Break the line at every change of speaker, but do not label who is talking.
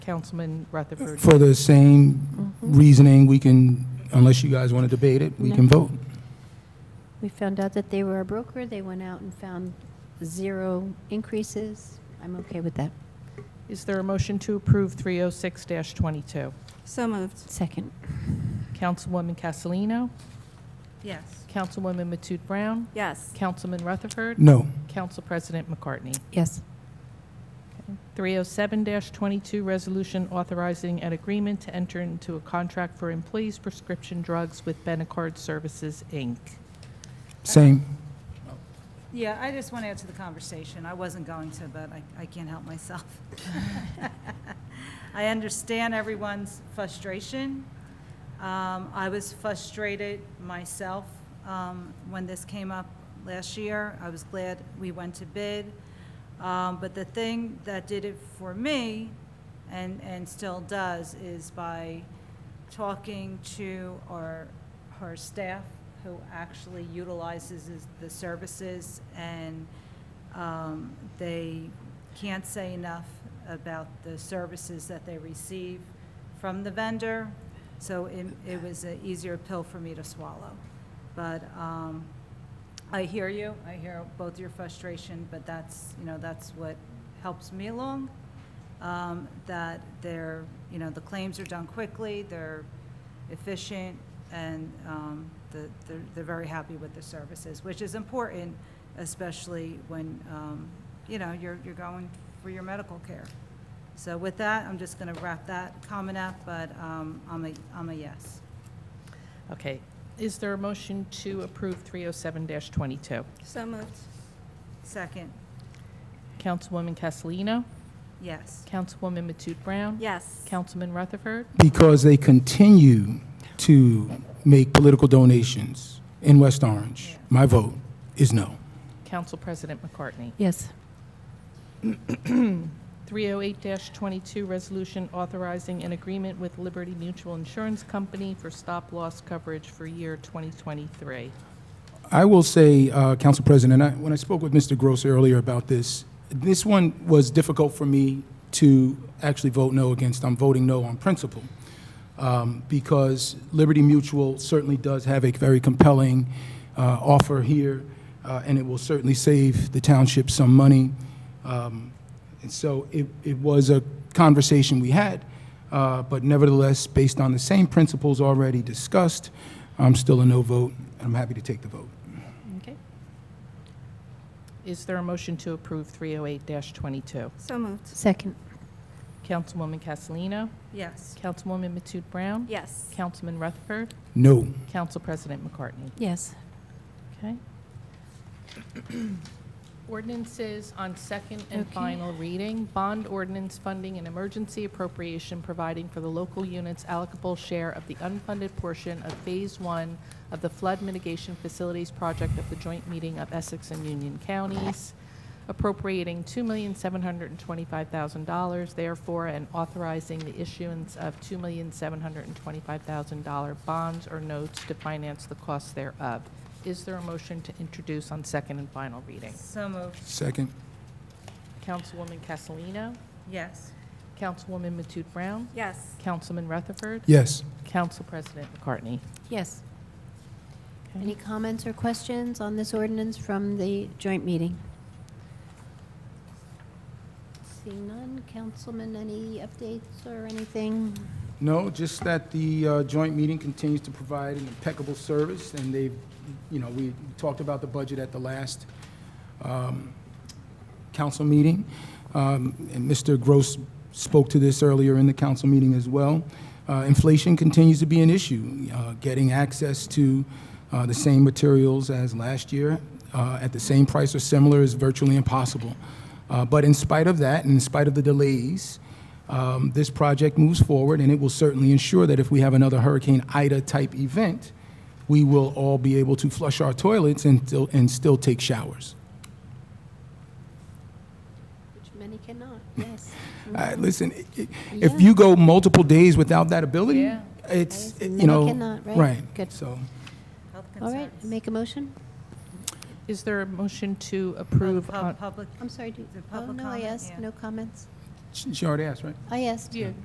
Councilman Rutherford.
For the same reasoning, we can, unless you guys want to debate it, we
No.
can vote.
We found out that they were a broker, they went out and found zero increases. I'm okay with that.
Is there a motion to approve 306-22?
So moved.
Second.
Councilwoman Castellino?
Yes.
Councilwoman Matute Brown?
Yes.
Councilman Rutherford?
No.
Council President McCartney?
Yes.
307-22, resolution authorizing an agreement to enter into a contract for employees' prescription drugs with Benacard Services, Inc.
Same.
Yeah, I just want to add to the conversation. I wasn't going to, but I, I can't help myself. I understand everyone's frustration. Um, I was frustrated myself, um, when this came up last year. I was glad we went to bid. Um, but the thing that did it for me, and, and still does, is by talking to our, her staff who actually utilizes is- the services, and um, they can't say enough about the services that they receive from the vendor, so it, it was an easier pill for me to swallow. But um, I hear you, I hear both your frustration, but that's, you know, that's what helps me along, um, that they're, you know, the claims are done quickly, they're efficient, and um, the- they're they're very happy with the services, which is important, especially when, um, you know, you're you're going for your medical care. So with that, I'm just going to wrap that comment up, but um, I'm a, I'm a yes.
Okay, is there a motion to approve 307-22?
So moved.
Second,
Councilwoman Castellino?
yes.
Councilwoman Matute Brown?
Yes.
Councilman Rutherford?
Because they continue to make political donations in West Orange. My vote is no.
Council President McCartney?
Yes.
308-22, resolution authorizing an agreement with Liberty Mutual Insurance Company for stop-loss coverage for year 2023.
I will say, uh, Council President, I- when I spoke with Mr. Gross earlier about this, this one was difficult for me to actually vote no against. I'm voting no on principle, um, because Liberty Mutual certainly does have a very compelling uh, offer here, uh, and it will certainly save the township some money. Um, And so it, it was a conversation we had, uh, but nevertheless, based on the same principles already discussed, I'm still a no vote, and I'm happy to take the vote.
Okay. Is there a motion to approve 308-22?
So moved.
Second.
Councilwoman Castellino?
Yes.
Councilwoman Matute Brown?
Yes.
Councilman Rutherford?
No.
Council President McCartney?
Yes.
Okay. Ordinances on second and
Okay.
final reading. Bond ordinance funding an emergency appropriation providing for the local unit's allocable share of the unfunded portion of Phase One of the Flood Mitigation Facilities Project of the joint meeting of Essex and Union Counties, appropriating $2,725,000, therefore, and authorizing the issuance of $2,725,000 bonds or notes to finance the costs thereof. Is there a motion to introduce on second and final reading?
So moved,
Second?
Councilwoman Castellino,
yes.
Councilwoman Matute Brown,
Yes.
Councilman Rutherford,
Yes.
Council President McCartney.
Yes.
Okay.
Any comments or questions on this ordinance from the joint meeting? Seeing none, Councilman, any updates or anything?
No, just that the uh, joint meeting continues to provide an impeccable service, and they've, you know, we talked about the budget at the last um, council meeting. Um, And Mr. Gross spoke to this earlier in the council meeting as well. Uh, Inflation continues to be an issue. Uh, Getting access to uh, the same materials as last year uh, at the same price or similar is virtually impossible. Uh, But in spite of that, and in spite of the delays, um, this project moves forward, and it will certainly ensure that if we have another Hurricane Ida-type event, we will all be able to flush our toilets and still, and still take showers.
Which many cannot, yes.
Uh, listen, i- i-
Yeah.
if you go multiple days without that ability,
Yeah.
it's,
Right.
you know.
Many cannot, right? Good.
So,
Health
All right,
concerns.
make a motion?
Is there a motion to
Pub-
approve
pub-
on,
Public,
I'm sorry, do,
The
oh,
Um, public
no, I
comment,
asked,
yeah.
no comments?
She she already asked, right?
I asked.
Yeah.